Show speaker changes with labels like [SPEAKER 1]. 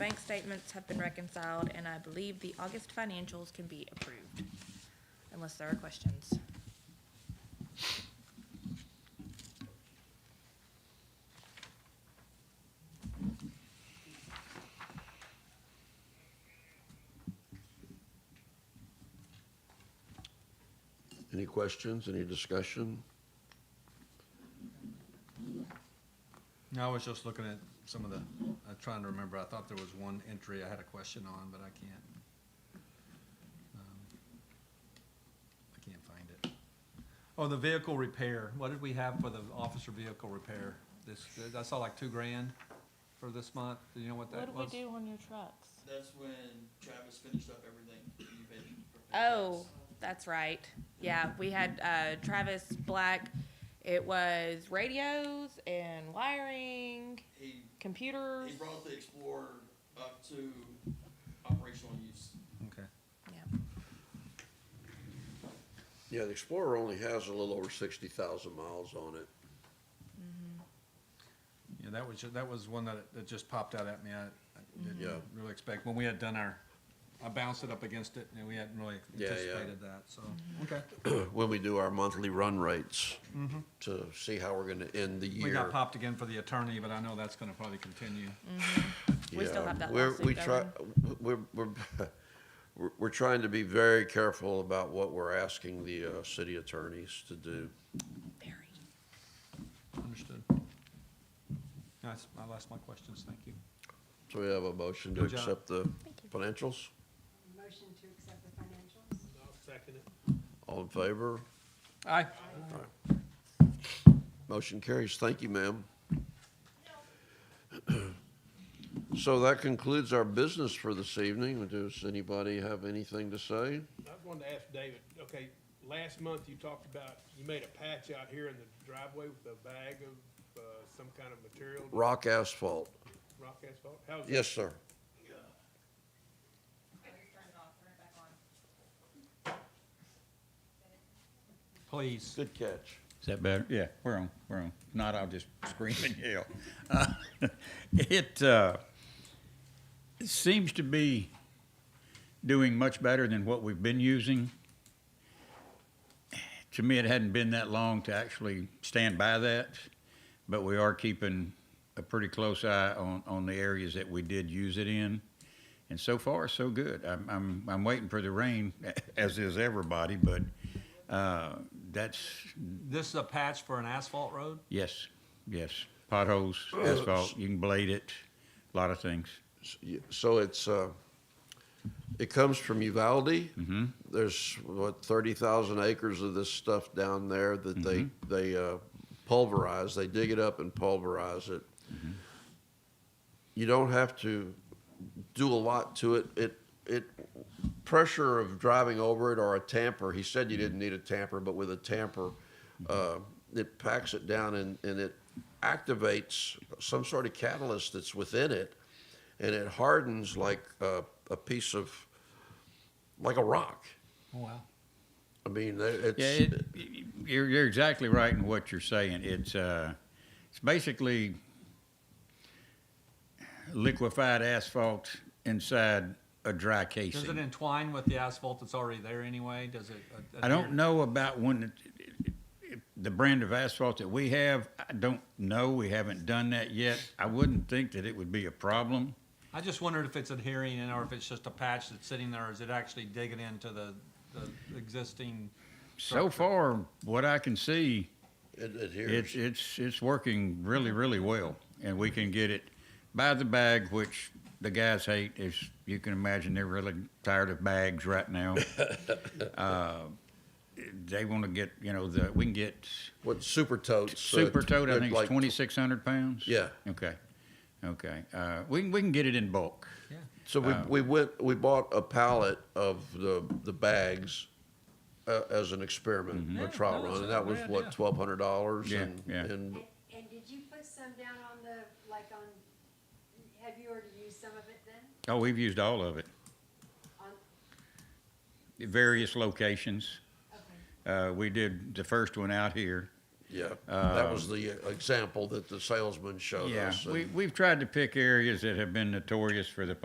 [SPEAKER 1] Bank statements have been reconciled, and I believe the August financials can be approved, unless there are questions.
[SPEAKER 2] Any questions, any discussion?
[SPEAKER 3] No, I was just looking at some of the, uh, trying to remember, I thought there was one entry I had a question on, but I can't. um, I can't find it. Oh, the vehicle repair, what did we have for the officer vehicle repair? This, I saw like two grand for this month, do you know what that
[SPEAKER 4] What
[SPEAKER 3] was?
[SPEAKER 4] do we do on your trucks?
[SPEAKER 5] That's when Travis finished up everything. that you had prepared for
[SPEAKER 1] Oh,
[SPEAKER 5] us.
[SPEAKER 1] that's right. Yeah, we had uh, Travis Black. It was radios and wiring,
[SPEAKER 5] He,
[SPEAKER 1] computers.
[SPEAKER 5] he brought the Explorer up to operational use.
[SPEAKER 3] Okay,
[SPEAKER 1] Yeah.
[SPEAKER 2] Yeah, the Explorer only has a little over sixty thousand miles on it.
[SPEAKER 3] yeah, that was, ju- that was one that, that just popped out at me, I I
[SPEAKER 2] Yeah.
[SPEAKER 3] didn't really expect, when we had done our, I bounced it up against it, and we hadn't really
[SPEAKER 2] Yeah, yeah.
[SPEAKER 3] anticipated that, so, okay.
[SPEAKER 2] When we do our monthly run rates
[SPEAKER 1] Mm-hmm.
[SPEAKER 2] to see how we're gonna end the year.
[SPEAKER 3] We got popped again for the attorney, but I know that's gonna probably continue.
[SPEAKER 1] We still
[SPEAKER 2] Yeah,
[SPEAKER 1] have that
[SPEAKER 2] we're- we
[SPEAKER 1] lawsuit
[SPEAKER 2] try- We're, we're, we're, we're trying to be very careful about what we're asking the, uh, city attorneys to do.
[SPEAKER 1] Very.
[SPEAKER 3] Understood. That's, I lost my questions, thank you.
[SPEAKER 2] So we have a motion to
[SPEAKER 3] Good job.
[SPEAKER 2] accept the financials?
[SPEAKER 6] Motion to accept the financials?
[SPEAKER 2] All in favor?
[SPEAKER 3] Aye.
[SPEAKER 2] Motion carries. Thank you, ma'am. So that concludes our business for this evening. Does anybody have anything to say?
[SPEAKER 7] I wanted to ask David, okay, last month you talked about, you made a patch out here in the driveway with a bag of, uh, some kind of material,
[SPEAKER 2] Rock asphalt.
[SPEAKER 7] rock asphalt? How's that?
[SPEAKER 2] Yes, sir.
[SPEAKER 3] Please.
[SPEAKER 2] Good catch.
[SPEAKER 8] Is that better? Yeah, we're on, we're on. If not, I'll just scream and yell. Uh, It uh, seems to be doing much better than what we've been using. To me, it hadn't been that long to actually stand by that, but we are keeping a pretty close eye on, on the areas that we did use it in. And so far, so good. I'm, I'm, I'm waiting for the rain, as is everybody, but uh, that's,
[SPEAKER 3] This is a patch for an asphalt road?
[SPEAKER 8] Yes, yes. Potholes, asphalt, you can blade it, a lot of things.
[SPEAKER 2] S- y- So it's, uh, it comes from Uvalde. There's, what, 30,000 acres of this stuff down there that they, they uh, pulverize. They dig it up and pulverize it. You don't have to do a lot to it. It, it, pressure of driving over it or a tamper, he said you didn't need a tamper, but with a tamper, uh, it packs it down and, and it activates some sort of catalyst that's within it and it hardens like a, a piece of like a rock.
[SPEAKER 3] Oh, Wow.
[SPEAKER 2] I mean, it's
[SPEAKER 8] Yeah, it, you're, you're exactly right in what you're saying. It's uh, it's basically liquefied asphalt inside a dry
[SPEAKER 3] Does it
[SPEAKER 8] casing.
[SPEAKER 3] entwine with the asphalt that's already there anyway? Does it? uh,
[SPEAKER 8] I
[SPEAKER 3] adhere-
[SPEAKER 8] don't know about when it- the brand of asphalt that we have. I don't know. We haven't done that yet. I wouldn't think that it would be a problem.
[SPEAKER 3] I just wondered if it's adhering and or if it's just a patch that's sitting there, or is it actually digging into the, the existing?
[SPEAKER 8] So far, what I can see,
[SPEAKER 2] it adheres.
[SPEAKER 8] It's, it's, it's working really, really well, and we can get it by the bag, which the guys hate, as you can imagine, they're really tired of bags right now. Uh, They want to get, you know, the, we can get
[SPEAKER 2] what super totes? so
[SPEAKER 8] super
[SPEAKER 2] it's-
[SPEAKER 8] tote, I
[SPEAKER 2] they're
[SPEAKER 8] think it's
[SPEAKER 2] like-
[SPEAKER 8] twenty-six hundred pounds?
[SPEAKER 2] Yeah.
[SPEAKER 8] Okay, okay, uh, we can, we can get it in bulk.
[SPEAKER 3] Yeah.
[SPEAKER 2] So we,
[SPEAKER 8] uh,
[SPEAKER 2] we went we bought a pallet of the the bags uh, as an experiment,
[SPEAKER 3] Yeah,
[SPEAKER 2] a trial
[SPEAKER 3] that was
[SPEAKER 2] run, and
[SPEAKER 3] a
[SPEAKER 2] that was
[SPEAKER 3] great idea.
[SPEAKER 2] what twelve hundred dollars.
[SPEAKER 8] Mm-hmm. Yeah,
[SPEAKER 2] and,
[SPEAKER 8] yeah.
[SPEAKER 2] and
[SPEAKER 6] And, and did you put some down on the, like on, have you already used some of it then?
[SPEAKER 8] Oh, we've used all of it,
[SPEAKER 6] On,
[SPEAKER 8] various locations.
[SPEAKER 6] okay.
[SPEAKER 8] Uh, we did the first one out here.
[SPEAKER 2] Yeah, that was the uh, example that the salesman showed
[SPEAKER 8] Yeah,
[SPEAKER 2] us. and-
[SPEAKER 8] we, we've tried to pick areas that have been notorious for the